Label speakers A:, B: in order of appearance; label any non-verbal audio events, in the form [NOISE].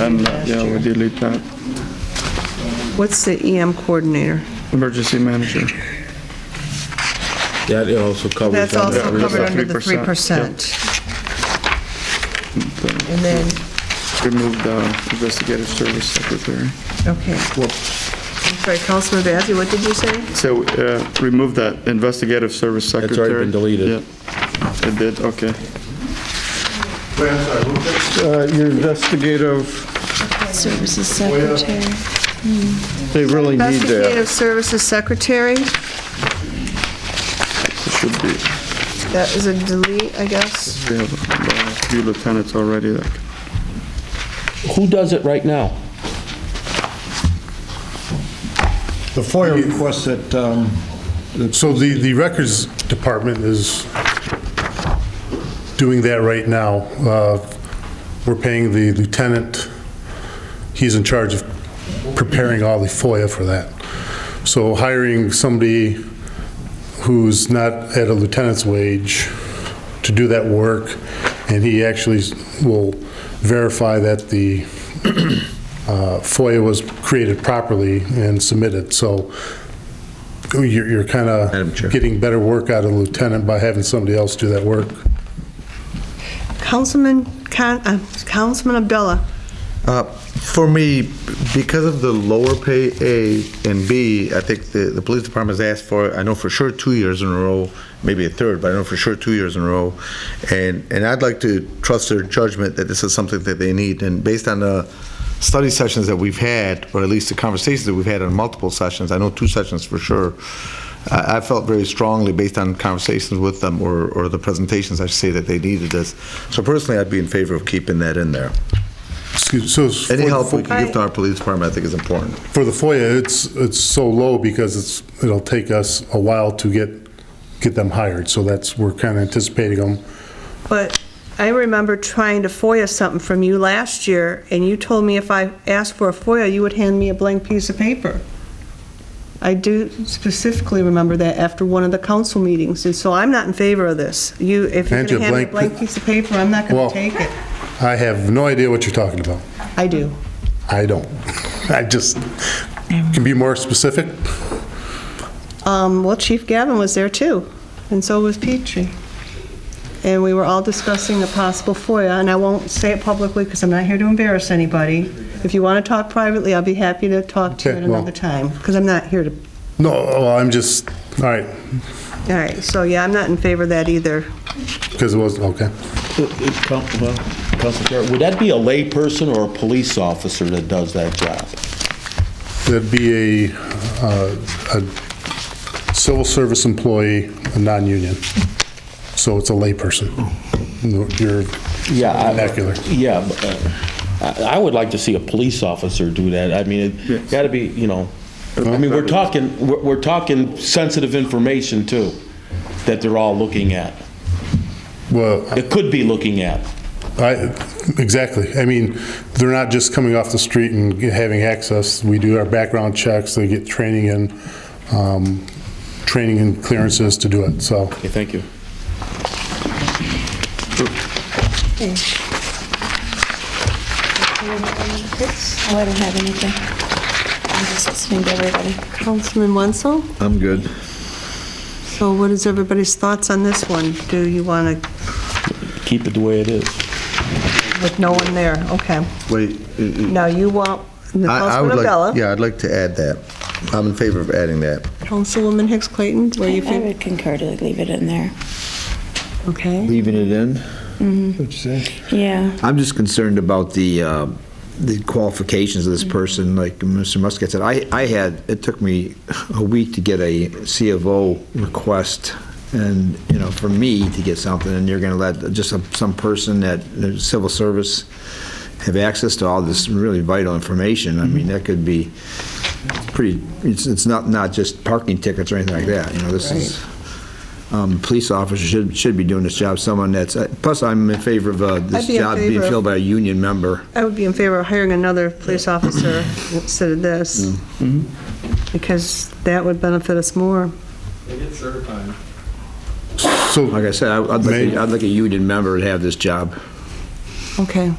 A: And, uh, yeah, we delete that.
B: What's the EM coordinator?
A: Emergency manager.
C: That also covers.
B: That's
C: under-
B: also
A: that's
B: covered
A: a
B: under the
A: 3%,
B: 3%. And then,
A: Remove the investigative service secretary.
B: okay. I'm sorry, Councilman Bazey, what did you say?
A: So uh, remove that investigative service
C: already
A: secretary.
C: been deleted.
A: Yeah. It did, okay.
D: Wait, I'm sorry, what was that?
A: Uh, Your investigative,
E: Services Secretary.
A: they really
B: Investigative Services Secretary,
A: Should be,
B: that is a delete, I guess.
A: we have uh, a few lieutenants already that
C: Who does it right now?
F: The FOIA request that, um, that-
D: So the, the records department is doing that right now. Uh, We're paying the lieutenant, he's in charge of preparing all the FOIA for that. So hiring somebody who's not at a lieutenant's wage to do that work, and he actually will verify that the [CLEARS THROAT] uh, FOIA was created properly and submitted. So you're, you're kind
C: Madam Chair.
D: of getting better work out of the lieutenant by having somebody else do that work.
B: Councilman, Con- uh, Councilman Abdullah,
G: Uh, For me, because of the lower pay A and B, I think the, the police department's asked for, I know for sure, two years in a row, maybe a third, but I know for sure, two years in a row. And, and I'd like to trust their judgment that this is something that they need. And based on the study sessions that we've had, or at least the conversations that we've had on multiple sessions, I know two sessions for sure, I, I felt very strongly, based on conversations with them or, or the presentations, I should say, that they needed this. So personally, I'd be in favor of keeping that in there.
D: Excuse- So it's-
G: Any help we
D: for
G: can give to our police department, I think is important.
D: for the FOIA, it's, it's so low because it's, it'll take us a while to get, get them hired. So that's, we're kind of anticipating them.
B: but I remember trying to FOIA something from you last year, and you told me if I asked for a FOIA, you would hand me a blank piece of paper. I do specifically remember that after one of the council meetings, and so I'm not in favor of this. You, if you're going
D: Hand you a
B: to hand me a
D: blank
B: blank piece of paper, I'm not going
D: Well-
B: to take it.
D: I have no idea what you're talking about.
B: I do.
D: I don't. [LAUGHS] I just, can be more specific?
B: Um, Well, Chief Gavin was there too, and so was Petrie. And we were all discussing a possible FOIA, and I won't say it publicly because I'm not here to embarrass anybody. If you want to talk privately, I'll be happy to talk to you at
D: Okay, well-
B: another time, because I'm not here to,
D: No, oh, I'm just, all right,
B: all right, so yeah, I'm not in favor of that either.
D: because it was, okay.
C: Uh, uh, Coun- well, Council Chair, Would that be a layperson or a police officer that does that job?
D: That'd be a, uh, a civil service employee, a non-union. So it's a layperson. You're
C: Yeah. I-
D: vernacular.
C: Yeah, but, uh, I I would like to see a police officer do that. I mean, it got to be, you know, I mean, we're talking, we're we're talking sensitive information too, that they're all looking at,
D: Well,
C: It could be looking at.
D: I, exactly. I mean, they're not just coming off the street and having access. We do our background checks, they get training and, um, training and clearances to do it, so.
C: Okay, thank you.
E: Oh, I don't have anything. I'm just listening to everybody.
B: Councilman Wenzel,
G: I'm good.
B: so what is everybody's thoughts on this one? Do you want to,
C: Keep it the way it is.
B: with no one there, okay.
G: Wait. I-
B: Now you want,
G: I would
B: Councilman
G: like-
B: Abdullah,
G: Yeah, I'd like to add that. I'm in favor of adding that.
B: Councilwoman Hicks Clayton, where you
E: I
B: feel,
E: would concur to leave it in there.
B: okay?
H: Leaving it in?
E: Yeah.
H: I'm just concerned about the, uh, the qualifications of this
B: Mm-hmm.
H: person, like Mr. Muscat said. I, I had, it took me a week to get a C of O request, and, you know, for me to get something, and you're going to let just some- some person that, the civil service, have access to all this really vital information. I
B: Mm-hmm.
H: mean, that could be pretty, it's, it's not, not just parking tickets or anything like that, you know, this is, um, police officers should, should be doing this job, someone that's, uh, plus I'm in favor of uh,
B: I'd
H: this
B: be in
H: job being
B: favor of-
H: filled by a union member.
B: I would be in favor of hiring another police officer instead of this, because that would benefit us more.
D: So
H: Like I said, I- I'd like,
D: May-
H: I'd like a union member to have this job.
B: Okay.